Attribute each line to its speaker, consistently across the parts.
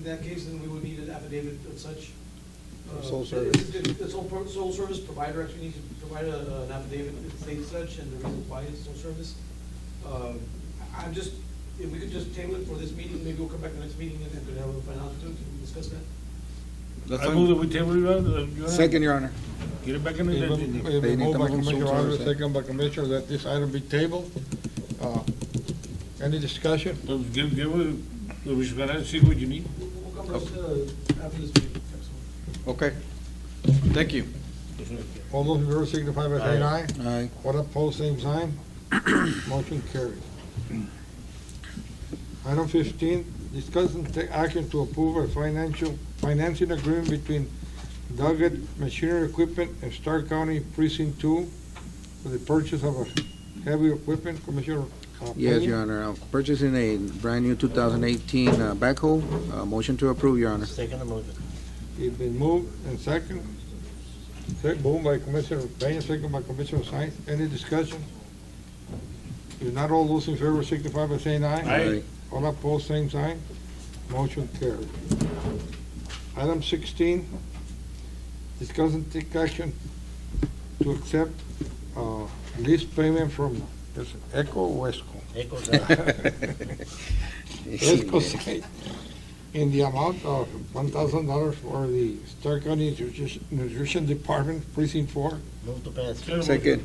Speaker 1: In that case, then we would need an affidavit of such. uh,
Speaker 2: Sole
Speaker 1: it-
Speaker 2: service.
Speaker 1: it- The sole, pro- sole service provider actually needs to provide a- an affidavit that states such and the reason why it's sole service. Um, I- I'm just, if we could just table it for this meeting, maybe we'll come back the next meeting and then could have a final opportunity to discuss that.
Speaker 3: I move that we table it, uh, Your Honor.
Speaker 2: Second, Your Honor.
Speaker 3: Get it back in the
Speaker 2: Even-
Speaker 3: agenda.
Speaker 2: They
Speaker 4: Been
Speaker 2: need
Speaker 4: moved
Speaker 2: to
Speaker 4: by
Speaker 2: move
Speaker 4: Commissioner
Speaker 2: some
Speaker 4: Alves,
Speaker 2: sort of-
Speaker 4: second by Commissioner, that this item be tabled. Uh, Any discussion?
Speaker 3: Let's Give, give, it- the respondent, see what you need.
Speaker 1: We'll we'll come back uh, after this meeting.
Speaker 2: Okay. Thank you.
Speaker 4: All those in favor signify by saying aye.
Speaker 2: Aye.
Speaker 4: What opposed, same sign. Motion carries. Item fifteen, discuss and take action to approve a financial, financing agreement between Doggett Machinery Equipment and Stark County Precinct Two for the purchase of a heavy equipment, Commissioner. uh,
Speaker 2: Yes,
Speaker 4: Peña.
Speaker 2: Your Honor. Uh, Purchasing a brand-new 2018 uh, backhoe. Uh, Motion to approve, Your Honor.
Speaker 5: Second motion.
Speaker 4: It's been moved and second. Second, moved by Commissioner Peña, second by Commissioner Sines. Any discussion? If not, all those in favor signify by saying aye.
Speaker 3: Aye.
Speaker 4: All opposed, same sign. Motion carried. Item sixteen, discuss and take action to accept, uh, lease payment from Echo Wesco.
Speaker 5: Echo, second.
Speaker 4: Fresco site in the amount of one thousand dollars for the Stark County Nutrition- Nutrition Department Precinct Four.
Speaker 5: move to pass.
Speaker 2: Second.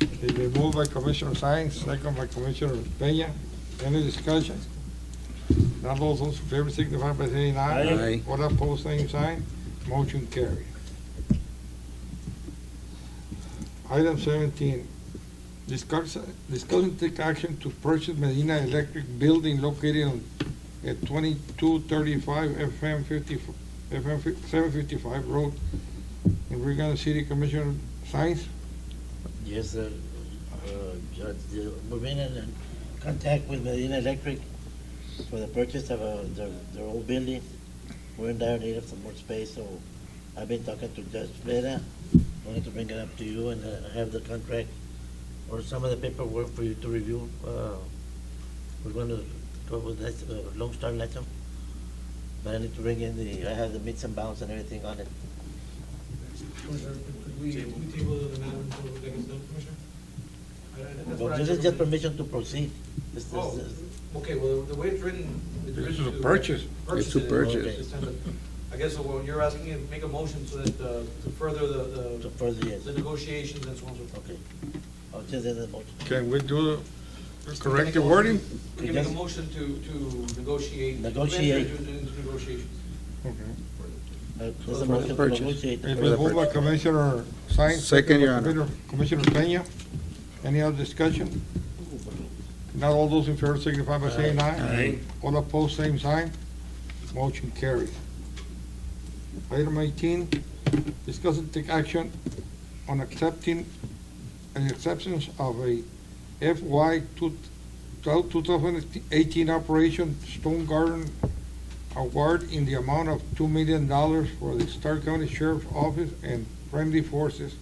Speaker 4: It's been moved by Commissioner Sines, second by Commissioner Peña. Any discussion? Not all those in favor signify by saying
Speaker 2: Aye.
Speaker 4: aye.
Speaker 2: Aye.
Speaker 4: What opposed, same sign. Motion carried. Item seventeen, discuss, discuss and take action to purchase Medina Electric Building located on at twenty-two thirty-five FM fifty, FM seven fifty-five road in Rio Grande City. Commissioner Sines?
Speaker 5: Yes, sir. Uh, Judge, uh, we've been in uh, contact with Medina Electric for the purchase of uh, their, their old building. We're in dire need of some more space, so I've been talking to Judge Vera. Wanted to bring it up to you and uh, have the contract or some of the paperwork for you to review. Uh, We're going to go with that, uh, Lone Star Lechem. But I need to bring in the, I have the meets and bounds and everything on it.
Speaker 1: Could we, we table the matter until the next done, Commissioner? I- I- that's what
Speaker 5: Well,
Speaker 1: I
Speaker 5: this is
Speaker 1: interpreted.
Speaker 5: just permission to proceed. This- this-
Speaker 1: Oh,
Speaker 5: this-
Speaker 1: okay, well, the way it's written. it's
Speaker 4: This is
Speaker 1: written
Speaker 4: a purchase.
Speaker 2: It's to
Speaker 1: it.
Speaker 2: purchase.
Speaker 1: It's kind of- I guess what you're asking is make a motion so that, uh, to further the,
Speaker 5: To further,
Speaker 1: the-
Speaker 5: yes,
Speaker 1: the negotiations and so on and so forth.
Speaker 5: okay. I'll just end the motion.
Speaker 4: Can we do, correct
Speaker 1: Make a
Speaker 4: the wording?
Speaker 1: motion- We can make a motion to, to negotiate. to enter
Speaker 5: Negotiate.
Speaker 1: into- into negotiations.
Speaker 5: Uh, There's
Speaker 1: For
Speaker 5: a
Speaker 1: the
Speaker 5: motion to
Speaker 2: purchase.
Speaker 5: negotiate. the
Speaker 4: It's
Speaker 5: purchase.
Speaker 4: been moved by Commissioner Sines.
Speaker 2: Second, Your
Speaker 4: by
Speaker 2: Honor.
Speaker 4: Commissioner Commissioner Peña. Any other discussion? Not all those in favor signify by saying aye.
Speaker 3: Aye.
Speaker 4: All opposed, same sign. Motion carries. Item eighteen, discuss and take action on accepting an acceptance of a FY two thousand eighteen Operation Stone Garden award in the amount of two million dollars for the Stark County Sheriff's Office and Friendly Forces.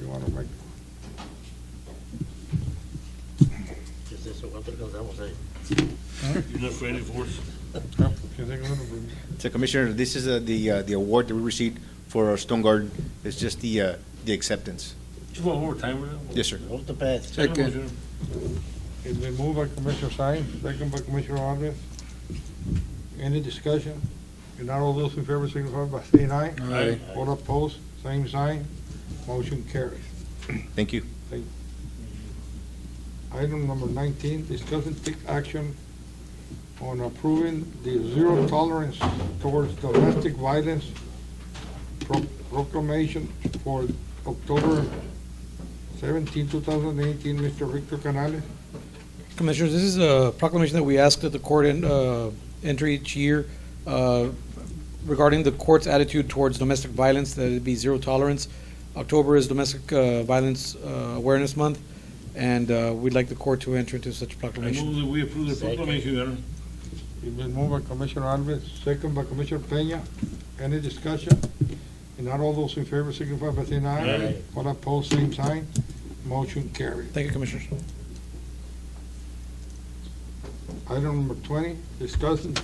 Speaker 4: You wanna make,
Speaker 5: Yes, yes, so cuánto alcanzamos ahí?
Speaker 3: You're not ready for us?
Speaker 4: can you take a little bit?
Speaker 6: So Commissioner, this is uh, the, uh, the award that we received for our Stone Garden. It's just the, uh, the acceptance.
Speaker 3: Just one more time. right?
Speaker 6: Yes, sir.
Speaker 5: Move to pass.
Speaker 3: Second
Speaker 2: Second.
Speaker 3: motion.
Speaker 4: It's been moved by Commissioner Sines, second by Commissioner Alves. Any discussion? If not, all those in favor signify by saying aye.
Speaker 3: Aye.
Speaker 4: All opposed, same sign. Motion carries.
Speaker 6: Thank you.
Speaker 4: Item number nineteen, discuss and take action on approving the zero tolerance towards domestic violence pro- proclamation for October 17, 2018. Mr. Victor Canales.
Speaker 7: Commissioners, this is a proclamation that we ask that the court en- uh, enter each year uh, regarding the court's attitude towards domestic violence, that it be zero tolerance. October is Domestic uh, Violence uh, Awareness Month, and uh, we'd like the court to enter into such
Speaker 3: I
Speaker 7: proclamation.
Speaker 3: move that we approve the
Speaker 5: Second.
Speaker 3: proclamation, Your Honor.
Speaker 4: It's been moved by Commissioner Alves, second by Commissioner Peña. Any discussion? And not all those in favor signify by saying aye.
Speaker 3: Aye.
Speaker 4: All opposed, same sign. Motion carried.
Speaker 7: Thank you, Commissioners.
Speaker 4: Item number twenty, discuss and